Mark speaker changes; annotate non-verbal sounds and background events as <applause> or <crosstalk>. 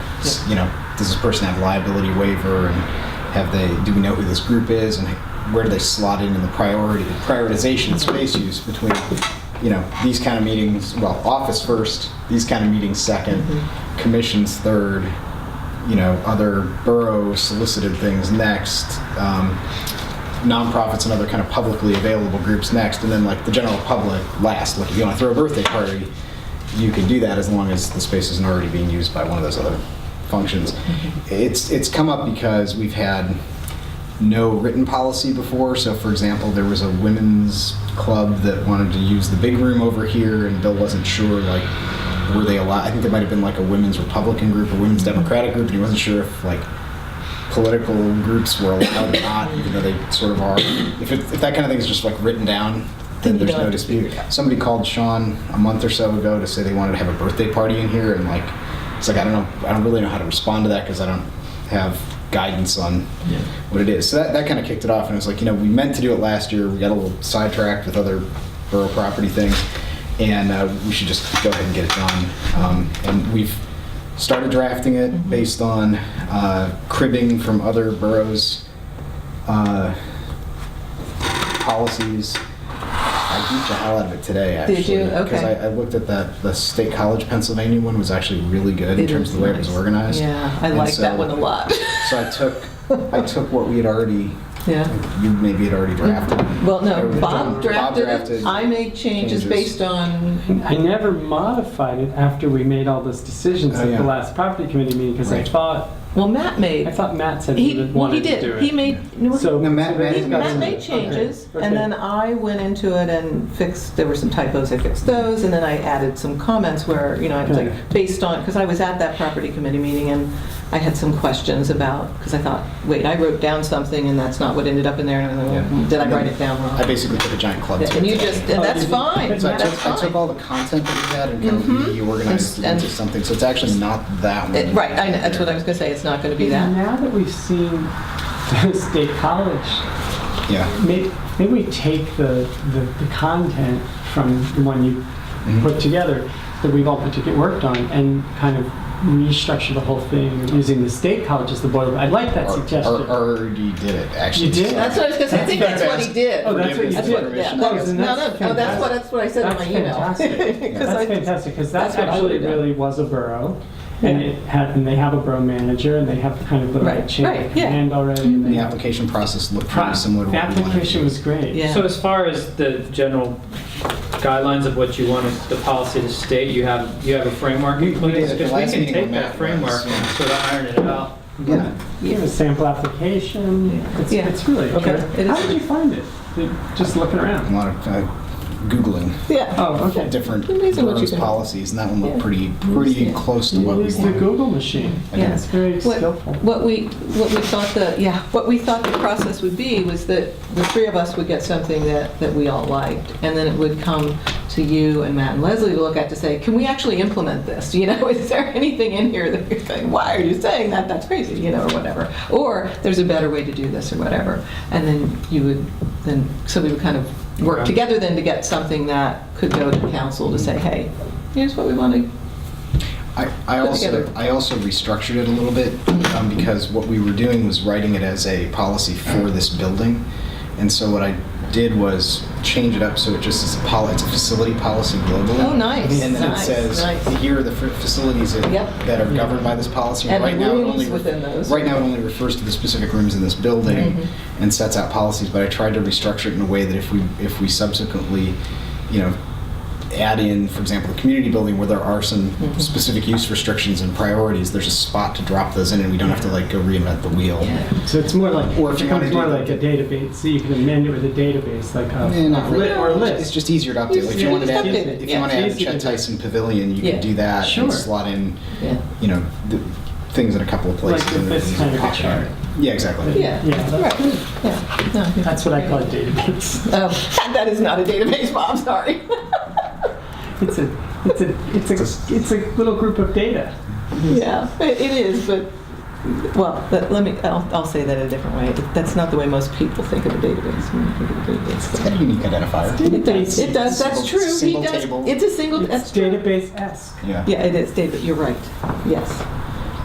Speaker 1: you know, does this person have liability waiver and have they, do we know who this group is and where do they slot in in the priority, the prioritization of space use between, you know, these kind of meetings, well, office first, these kind of meetings second, commissions third, you know, other borough solicited things next, um, nonprofits and other kind of publicly available groups next, and then like the general public last. Like if you want to throw a birthday party, you can do that as long as the space isn't already being used by one of those other functions. It's it's come up because we've had no written policy before. So for example, there was a women's club that wanted to use the big room over here, and Bill wasn't sure like were they allowed. I think there might have been like a women's Republican group, a women's Democratic group, and he wasn't sure if like political groups were allowed or not, even though they sort of are. If, it, if that kind of thing is just like written down, then
Speaker 2: Then you
Speaker 1: there's
Speaker 2: don't
Speaker 1: no
Speaker 2: have to
Speaker 1: dispute. Somebody called Sean a month or so ago to say they wanted to have a birthday party in here, and like, it's like I don't know, I don't really know how to respond to that because I don't have guidance on what it is. So that, that kind of kicked it off, and it was like, you know, we meant to do it last year, we got a little sidetracked with other borough property things, and uh, we should just go ahead and get it done. Um, and we've started drafting it based on uh, cribbing from other boroughs' uh, policies. I beat the hell out of it today, actually.
Speaker 2: Did you?
Speaker 1: Because I,
Speaker 2: Okay.
Speaker 1: I looked at that, the State College Pennsylvania one was actually really good in
Speaker 2: It
Speaker 1: terms of
Speaker 2: is
Speaker 1: the way it was
Speaker 2: nice.
Speaker 1: organized.
Speaker 2: Yeah, I
Speaker 1: And
Speaker 2: like that
Speaker 1: so-
Speaker 2: one
Speaker 1: <laughs>
Speaker 2: a lot.
Speaker 1: So I took, I took what we had already,
Speaker 2: Yeah.
Speaker 1: you maybe had already drafted.
Speaker 2: Well,
Speaker 1: Or
Speaker 2: no,
Speaker 1: Bob
Speaker 2: Bob drafted
Speaker 1: drafted
Speaker 2: it. I made changes
Speaker 1: changes.
Speaker 2: based on,
Speaker 3: I never modified it after we made all those decisions
Speaker 1: Oh,
Speaker 3: at
Speaker 1: yeah.
Speaker 3: the last property committee meeting because I
Speaker 1: Right.
Speaker 3: thought
Speaker 2: well, Matt made.
Speaker 3: I thought Matt said
Speaker 2: He,
Speaker 3: he, would-
Speaker 2: well, he
Speaker 3: wanted to do
Speaker 2: did.
Speaker 3: it.
Speaker 2: He made, no,
Speaker 3: so
Speaker 1: No, Matt-
Speaker 3: so they've
Speaker 1: Matt-
Speaker 3: got
Speaker 1: Matt
Speaker 3: some-
Speaker 2: Matt made
Speaker 3: okay,
Speaker 2: changes,
Speaker 3: okay.
Speaker 2: and then I went into it and fixed, there were some typos, I fixed those, and then I added some comments where, you know, I was
Speaker 3: Okay.
Speaker 2: like, based on, because I was at that property committee meeting, and I had some questions about, because I thought, wait, I wrote down something, and that's not what ended up in there, and I was like,
Speaker 1: Yeah.
Speaker 2: "Well, did I
Speaker 1: And
Speaker 2: write
Speaker 1: then
Speaker 2: it down
Speaker 1: I
Speaker 2: wrong?
Speaker 1: basically took a giant club. to
Speaker 2: And
Speaker 1: it
Speaker 2: you
Speaker 1: today.
Speaker 2: just, and
Speaker 3: Oh,
Speaker 2: that's
Speaker 3: you did-
Speaker 2: fine,
Speaker 1: So I
Speaker 2: that's
Speaker 1: took, I took
Speaker 2: fine.
Speaker 1: all the content that we had and kind of
Speaker 2: Mhm.
Speaker 1: reorganized
Speaker 2: And-
Speaker 1: it into
Speaker 2: and-
Speaker 1: something. So it's actually not that one.
Speaker 2: It- Right, I know, that's what I was gonna say, it's not gonna be that.
Speaker 3: Now that we've seen <laughs> the state college
Speaker 1: Yeah.
Speaker 3: Maybe, maybe we take the, the, the content from the one you
Speaker 1: Mm-hmm.
Speaker 3: put together that we've all particularly worked on and kind of restructure the whole thing using the state college as the boiler. I like that
Speaker 1: Or,
Speaker 3: suggestion. Oh,
Speaker 1: or, already did it actually.
Speaker 3: You did?
Speaker 2: That's what I was gonna say, I think that's what he did.
Speaker 3: Oh, that's what you
Speaker 1: Forgiveness
Speaker 2: That's
Speaker 3: did.
Speaker 2: what,
Speaker 1: and
Speaker 2: yeah,
Speaker 1: remission.
Speaker 2: that
Speaker 3: Oh,
Speaker 2: was,
Speaker 3: then
Speaker 2: no, no,
Speaker 3: that's
Speaker 2: no, that's
Speaker 3: fantastic.
Speaker 2: what, that's what I said in my
Speaker 3: That's
Speaker 2: email.
Speaker 3: <laughs> fantastic.
Speaker 2: <laughs> 'Cause I-
Speaker 3: That's fantastic because
Speaker 2: that's
Speaker 3: that
Speaker 2: what I
Speaker 3: actually
Speaker 2: would've done.
Speaker 3: really was a borough. And it had, and they have a borough manager and they have kind of
Speaker 2: Right,
Speaker 3: a chain
Speaker 2: right,
Speaker 3: of
Speaker 2: yeah.
Speaker 3: command already. and
Speaker 1: The
Speaker 3: they-
Speaker 1: application process looked
Speaker 3: Pro-
Speaker 1: pretty similar to
Speaker 3: The
Speaker 1: what we wanted to
Speaker 3: application
Speaker 1: do.
Speaker 3: was great.
Speaker 2: Yeah.
Speaker 4: So as far as the general guidelines of what you want the policy to state, you have, you have a framework in
Speaker 1: We- we did
Speaker 4: place?
Speaker 1: at the
Speaker 4: Because
Speaker 1: last
Speaker 4: we can
Speaker 1: meeting
Speaker 4: take
Speaker 1: with
Speaker 4: that
Speaker 1: Matt,
Speaker 4: framework
Speaker 1: yeah.
Speaker 4: and sort of iron it out.
Speaker 1: Yeah.
Speaker 3: You have a sample application. It's,
Speaker 2: Yeah.
Speaker 3: it's really
Speaker 2: Okay.
Speaker 3: good.
Speaker 2: It is-
Speaker 3: How did you find it? Just looking
Speaker 1: A
Speaker 3: around.
Speaker 1: lot of uh, Googling
Speaker 2: Yeah,
Speaker 3: Oh, okay.
Speaker 1: different
Speaker 2: Amazing what you
Speaker 1: boroughs'
Speaker 2: can-
Speaker 1: policies, and that one looked
Speaker 2: Yeah.
Speaker 1: pretty pretty
Speaker 2: Yeah.
Speaker 1: close to
Speaker 3: You
Speaker 1: what we
Speaker 3: use the
Speaker 1: wanted.
Speaker 3: Google machine.
Speaker 1: Yeah.
Speaker 3: It's very
Speaker 2: What-
Speaker 3: skillful.
Speaker 2: What we, what we thought the, yeah, what we thought the process would be was that the three of us would get something that, that we all liked, and then it would come to you and Matt and Leslie to look at to say, can we actually implement this? <laughs> You know, is there anything in here that you're saying, why are you saying that? That's crazy, you know, or whatever. Or there's a better way to do this or whatever. And then you would, then, so we would kind of work
Speaker 4: Okay.
Speaker 2: together then to get something that could go to council to say, hey, here's what we want to
Speaker 1: I, I
Speaker 2: Put
Speaker 1: also
Speaker 2: together.
Speaker 1: I also restructured it a little bit um, because what we were doing was writing it as a policy for this building, and so what I did was change it up so it just is a poli- it's a facility policy globally.
Speaker 2: Oh, nice,
Speaker 1: And then
Speaker 2: nice,
Speaker 1: it says
Speaker 2: nice.
Speaker 1: here are the fa- facilities that,
Speaker 2: Yep.
Speaker 1: that are governed by this policy.
Speaker 2: And the
Speaker 1: right now it
Speaker 2: rooms
Speaker 1: only re-
Speaker 2: within those. Mm-hmm.
Speaker 1: Right now it only refers to the specific rooms in this building and sets out policies. But I tried to restructure it in a way that if we if we subsequently, you know, add in, for example, the community building where there are some
Speaker 2: Mm-hmm.
Speaker 1: specific use restrictions and priorities, there's a spot to drop those in, and we don't have to like go reinvent the wheel.
Speaker 3: So it's more like,
Speaker 1: Or
Speaker 3: or
Speaker 1: if
Speaker 3: it
Speaker 1: you wanna
Speaker 3: becomes more
Speaker 1: do
Speaker 3: like a database, so you can amend it with a database, like a
Speaker 1: Eh, not
Speaker 3: a li-
Speaker 1: really.
Speaker 3: or a
Speaker 1: It's
Speaker 3: list.
Speaker 1: just easier to update. Like, if you
Speaker 2: Yeah,
Speaker 1: want to
Speaker 2: just
Speaker 1: add,
Speaker 2: update
Speaker 1: if
Speaker 2: it.
Speaker 1: you want to
Speaker 3: Yeah.
Speaker 1: add
Speaker 3: It's
Speaker 1: the
Speaker 3: easy to
Speaker 1: Chet
Speaker 3: do.
Speaker 1: Tyson Pavilion, you
Speaker 2: Yeah.
Speaker 1: can do that
Speaker 3: Sure.
Speaker 1: and slot in,
Speaker 2: Yeah.
Speaker 1: you know, the things in a couple of places.
Speaker 3: Like
Speaker 1: and
Speaker 3: this
Speaker 1: then
Speaker 3: kind of
Speaker 1: pop
Speaker 3: chart.
Speaker 1: out. Yeah, exactly.
Speaker 2: Yeah.
Speaker 3: Yeah,
Speaker 2: Right,
Speaker 3: that's-
Speaker 2: yeah, no. I think-
Speaker 3: that's what I call a database.
Speaker 2: Oh, <laughs> that is not a database, Bob, sorry.
Speaker 3: It's a, it's a, it's a, it's a little group of data.
Speaker 2: Yeah, it it is, but, well, but let me, I'll, I'll say that a different way. That's not the way most people think of a database, when they think of a
Speaker 1: It's got
Speaker 2: database.
Speaker 1: a unique identifier.
Speaker 2: It does, it does, that's
Speaker 1: Single-
Speaker 2: true, he
Speaker 1: single
Speaker 2: does,
Speaker 1: table.
Speaker 2: it's a single,
Speaker 3: It's
Speaker 2: that's true.
Speaker 3: database-esque.
Speaker 1: Yeah.
Speaker 2: Yeah, it is, David, you're right, yes.